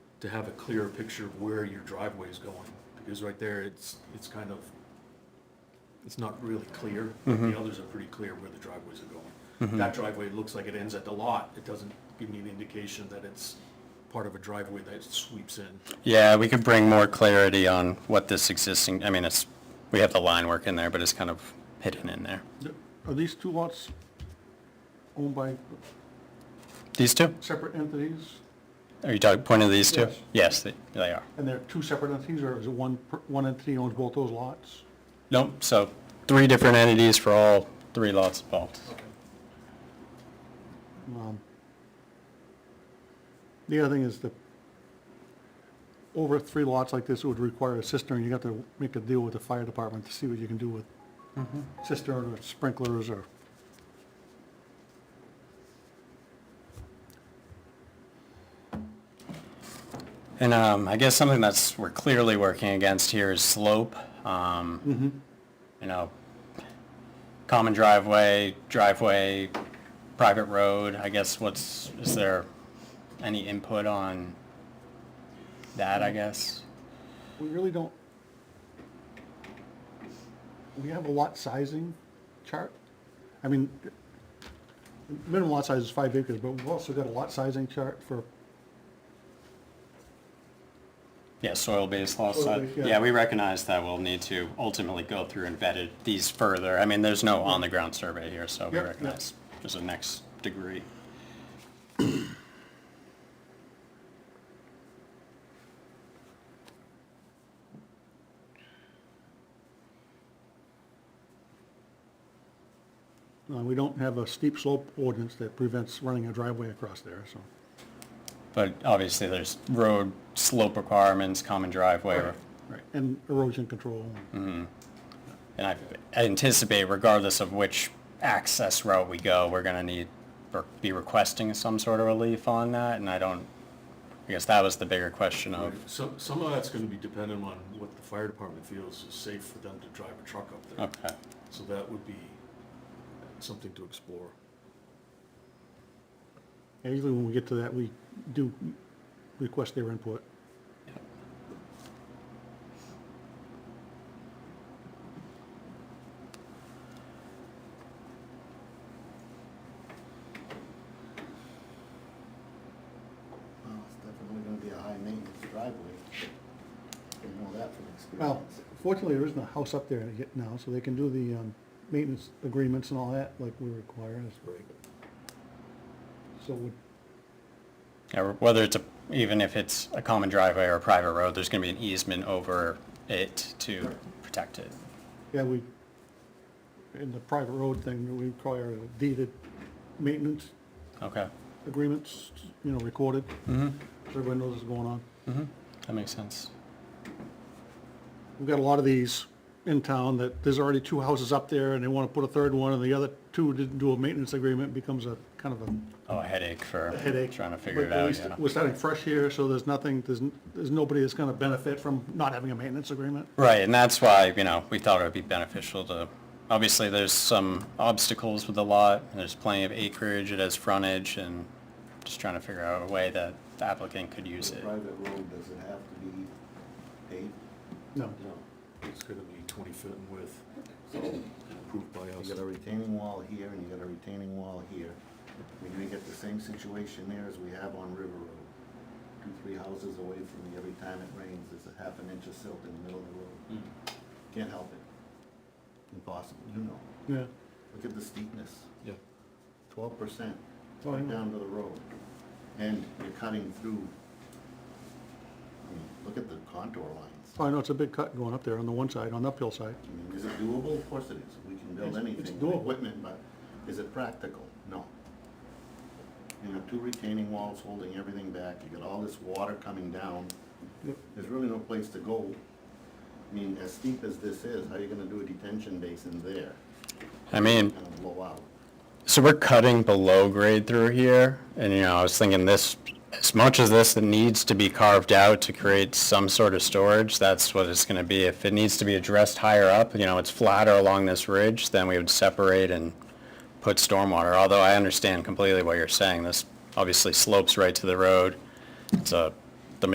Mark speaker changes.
Speaker 1: to have a clearer picture of where your driveway is going, because right there, it's, it's kind of, it's not really clear. The others are pretty clear where the driveways are going. That driveway looks like it ends at the lot, it doesn't give me an indication that it's part of a driveway that sweeps in.
Speaker 2: Yeah, we could bring more clarity on what this existing, I mean, it's, we have the line work in there, but it's kind of hidden in there.
Speaker 3: Are these two lots owned by
Speaker 2: These two?
Speaker 3: separate entities?
Speaker 2: Are you talking, pointing to these two?
Speaker 3: Yes.
Speaker 2: Yes, they, they are.
Speaker 3: And they're two separate entities, or is it one, per- one entity owns both those lots?
Speaker 2: Nope, so three different entities for all three lots involved.
Speaker 3: Um, The other thing is the, over three lots like this, it would require a cistern. You got to make a deal with the fire department to see what you can do with cistern or sprinklers or.
Speaker 2: And um, I guess something that's, we're clearly working against here is slope. Um, You know, common driveway, driveway, private road, I guess what's, is there any input on that, I guess?
Speaker 3: We really don't. We have a lot sizing chart. I mean, minimum lot size is five acres, but we've also got a lot sizing chart for,
Speaker 2: Yeah, soil-based law
Speaker 3: Soil
Speaker 2: side.
Speaker 3: based, yeah.
Speaker 2: Yeah, we recognize that we'll need to ultimately go through and vet it- these further. I mean, there's no on-the-ground survey here, so we
Speaker 3: Yep, yep.
Speaker 2: recognize there's a next degree.
Speaker 3: uh, we don't have a steep slope ordinance that prevents running a driveway across there, so.
Speaker 2: But obviously, there's road slope requirements, common driveway,
Speaker 3: Right. And erosion control.
Speaker 2: and I anticipate regardless of which access route we go, we're gonna need, or be requesting some sort of relief on that, and I don't, I guess that was the bigger question of,
Speaker 1: So, some of that's gonna be dependent on what the fire department feels is safe for them to drive a truck up there.
Speaker 2: okay.
Speaker 1: So that would be something to explore.
Speaker 3: Yeah, Usually when we get to that, we do request their input.
Speaker 4: Well, it's definitely gonna be a high maintenance driveway. You know that from
Speaker 3: Well,
Speaker 4: experience.
Speaker 3: fortunately, there isn't a house up there yet now, so they can do the um, maintenance agreements and all that like we require.
Speaker 1: Right.
Speaker 3: So would
Speaker 2: Yeah, or whether it's a, even if it's a common driveway or a private road, there's gonna be an easement over it to protect it.
Speaker 3: Yeah, we, in the private road thing, we require deeded maintenance
Speaker 2: Okay,
Speaker 3: agreements, you know, recorded. Mm-hmm. So everyone knows what's going on.
Speaker 2: that makes sense.
Speaker 3: We've got a lot of these in town that there's already two houses up there and they want to put a third one and the other two didn't do a maintenance agreement, becomes a kind of a
Speaker 2: Oh, a headache for
Speaker 3: headache.
Speaker 2: trying to figure it
Speaker 3: But at
Speaker 2: out,
Speaker 3: least
Speaker 2: yeah.
Speaker 3: We're starting fresh here, so there's nothing, there's, n- there's nobody that's gonna benefit from not having a maintenance agreement.
Speaker 2: Right, and that's why, you know, we thought it would be beneficial to, obviously, there's some obstacles with the lot, and there's plenty of acreage, it has frontage, and just trying to figure out a way that the applicant could use
Speaker 4: For a
Speaker 2: it.
Speaker 4: Private road, does it have to be paved?
Speaker 3: No.
Speaker 4: No.
Speaker 1: It's gonna be twenty foot in width,
Speaker 4: So
Speaker 1: approved by
Speaker 4: you
Speaker 1: us.
Speaker 4: got a retaining wall here and you got a retaining wall here. We're gonna get the same situation there as we have on River Road. Two, three houses away from me, every time it rains, there's a half an inch of silt in the middle of the road. Can't help it. Impossible, you know.
Speaker 3: Yeah.
Speaker 4: Look at the steepness.
Speaker 1: Yeah.
Speaker 4: twelve percent
Speaker 3: Oh, I
Speaker 4: right
Speaker 3: know.
Speaker 4: down to the road. And you're cutting through, I mean, look at the contour lines.
Speaker 3: Oh, I know, it's a big cut going up there on the one side, on the uphill side.
Speaker 4: I mean, is it doable? Of course it is. We can build
Speaker 3: It's- it's
Speaker 4: anything with
Speaker 3: doable.
Speaker 4: equipment, but is it practical? No. You have two retaining walls holding everything back. You got all this water coming down.
Speaker 3: Yep.
Speaker 4: There's really no place to go. I mean, as steep as this is, how are you gonna do a detention basin there?
Speaker 2: I mean,
Speaker 4: Gonna blow out.
Speaker 2: So we're cutting below grade through here, and you know, I was thinking this, as much as this that needs to be carved out to create some sort of storage, that's what it's gonna be. If it needs to be addressed higher up, you know, it's flatter along this ridge, then we would separate and put stormwater, although I understand completely what you're saying. This obviously slopes right to the road. It's a